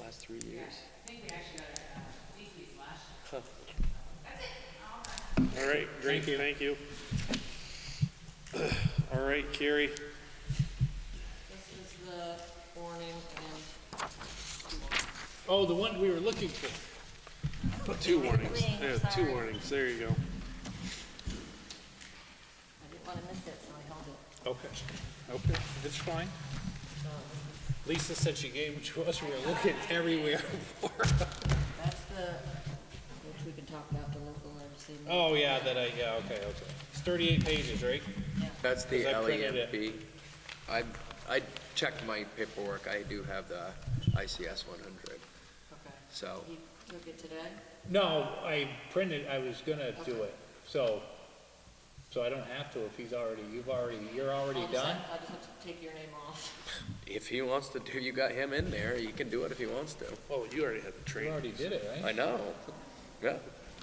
last three years. All right, great, thank you. All right, Carrie, This is the warning and Oh, the one we were looking for. two warnings, Wing, yeah, two sorry. warnings, there you go. I didn't want to miss it, so I held it. Okay. Okay, it's fine. Lisa said she gave it to us, we were looking everywhere. That's the, which we can talk about the local emergency. management. Oh, yeah, that I, yeah, okay, okay. It's thirty-eight pages, right? That's the Because I printed it. LEMP. I, I checked my paperwork, I do have the ICS 100, Okay. so, You took it today? No, I printed, I was gonna do it, so, so I don't have to if he's already, you've already, you're already I'll just done? have- I just have to take your name off. if he wants to do, you got him in there, he can do it if he wants to. Oh, you already had the You training. already did it, right? I know, yeah,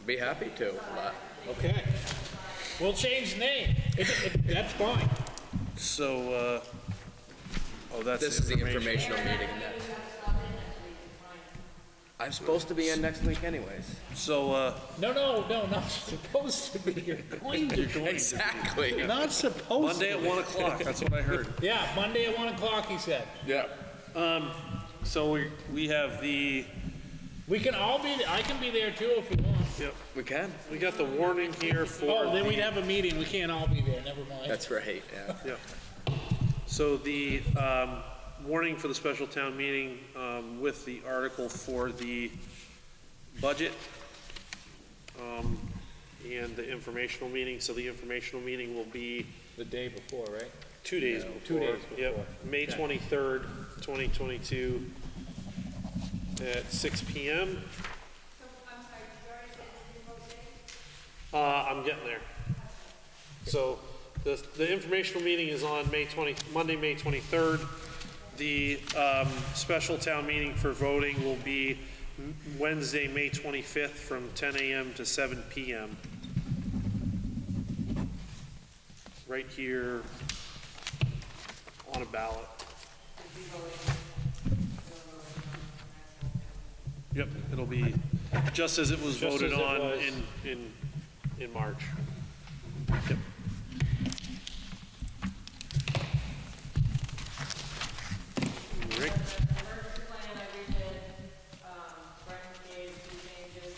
be happy to, but Okay. We'll change the name. It, it, that's fine. So, uh, oh, that's this is the information. informational meeting. I'm supposed to be in next week anyways. So, uh, No, no, no, not supposed to be. You're going to do it. Exactly. Not supposed Monday to. at one o'clock, that's what I heard. Yeah, Monday at one o'clock, he said. Yeah. So we, we have the, We can all be, I can be there too if you want. We can, we got the warning here for Oh, then we'd the, have a meeting, we can't all be there, never mind. that's right, yeah. so the, um, warning for the special town meeting, um, with the article for the budget, um, and the informational meeting, so the informational meeting will be The day before, right? two days before. two days before. Yep, May Okay. twenty-third, twenty twenty-two, at six P M. Uh, I'm getting there. So the, the informational meeting is on May 20, Monday, May 23rd. The um, special town meeting for voting will be M- Wednesday, May 25th, from 10 a.m. to 7 p.m. Right here on a ballot. Yep, it'll be just as it was Just voted as it on was. in, in, in March. Rick? Emergency plan I redid, um, Brian gave two changes,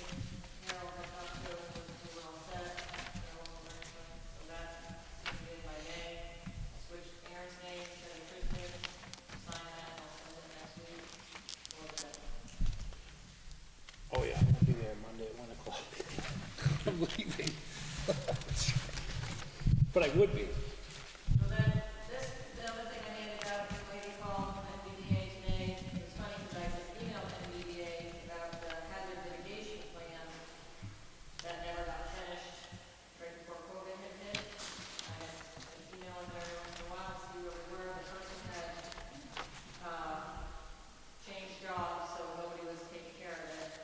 Harold had talked to him, was well set, Harold was very set, so that's submitted by May. I Switched Aaron's name instead of Chris' name, sign that, and I'll send it next week, or the next. Oh, yeah, I'll be there Monday at one o'clock. I'm leaving. But I would be. So then, this, the other thing I handed out, this lady called MBDA today, it was funny, because I just emailed MBDA E about the hazard mitigation plan that never got finished right before COVID had hit. I had an email in there once in a while, to see where we were, the person had, uh, changed jobs, so nobody was taking care of it.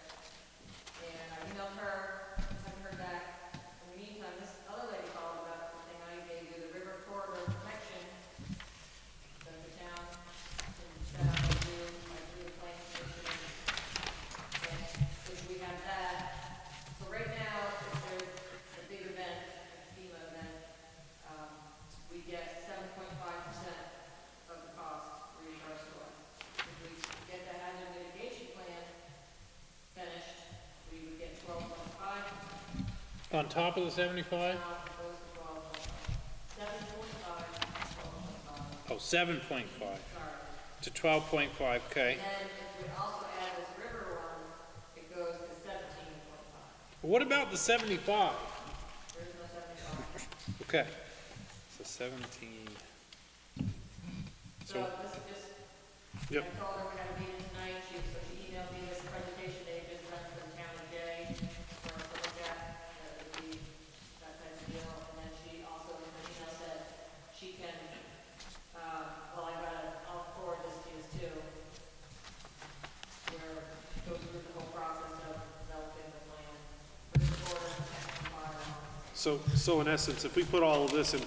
And I emailed her, sent her back. In the meantime, this other lady called about the thing I gave you, the river corridor connection that the town can set up and do, like, do a plan station. And if we have that, so right now, if there's a big event, a FEMA event, um, we get seven point five percent of the cost reimbursed to us. If we get the hazard mitigation plan finished, we would get twelve point five, On top of the seventy-five? now it goes to twelve point five. Seven point five, twelve point five, Oh, seven point five sorry. to twelve point five, okay. And if we also add this river one, it goes to seventeen point five. What about the seventy-five? There is no seventy-five. Okay. So seventeen. So this is just, Yep. I told her we had a meeting tonight, she, so she emailed me this presentation they just done for the town today, for us to look at, that would be, that type of deal. And then she also, in her email said, she can, uh, well, I got, it. I'll forward this to you too. Where it goes through the whole process of developing the plan, with the board and the fire. So, so in essence, if we put all of this in